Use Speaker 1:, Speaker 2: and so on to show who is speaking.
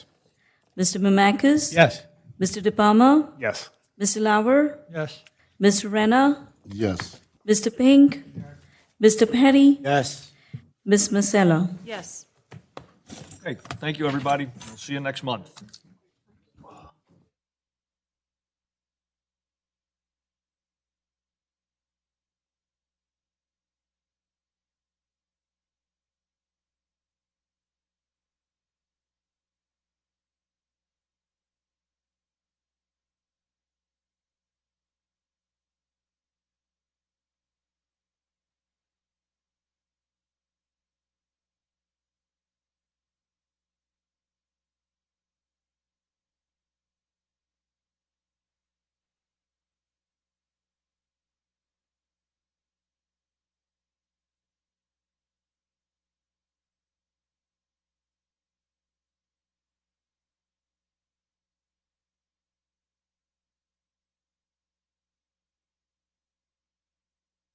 Speaker 1: Mr. Mamakis?
Speaker 2: Yes.
Speaker 1: Mr. De Palma?
Speaker 2: Yes.
Speaker 1: Mr. Lauer?
Speaker 2: Yes.
Speaker 1: Mr. Rena?
Speaker 3: Yes.
Speaker 1: Mr. Pink? Mr. Petty?
Speaker 2: Yes.
Speaker 1: Ms. Masella?
Speaker 4: Yes.
Speaker 5: Okay, thank you, everybody. We'll see you next month.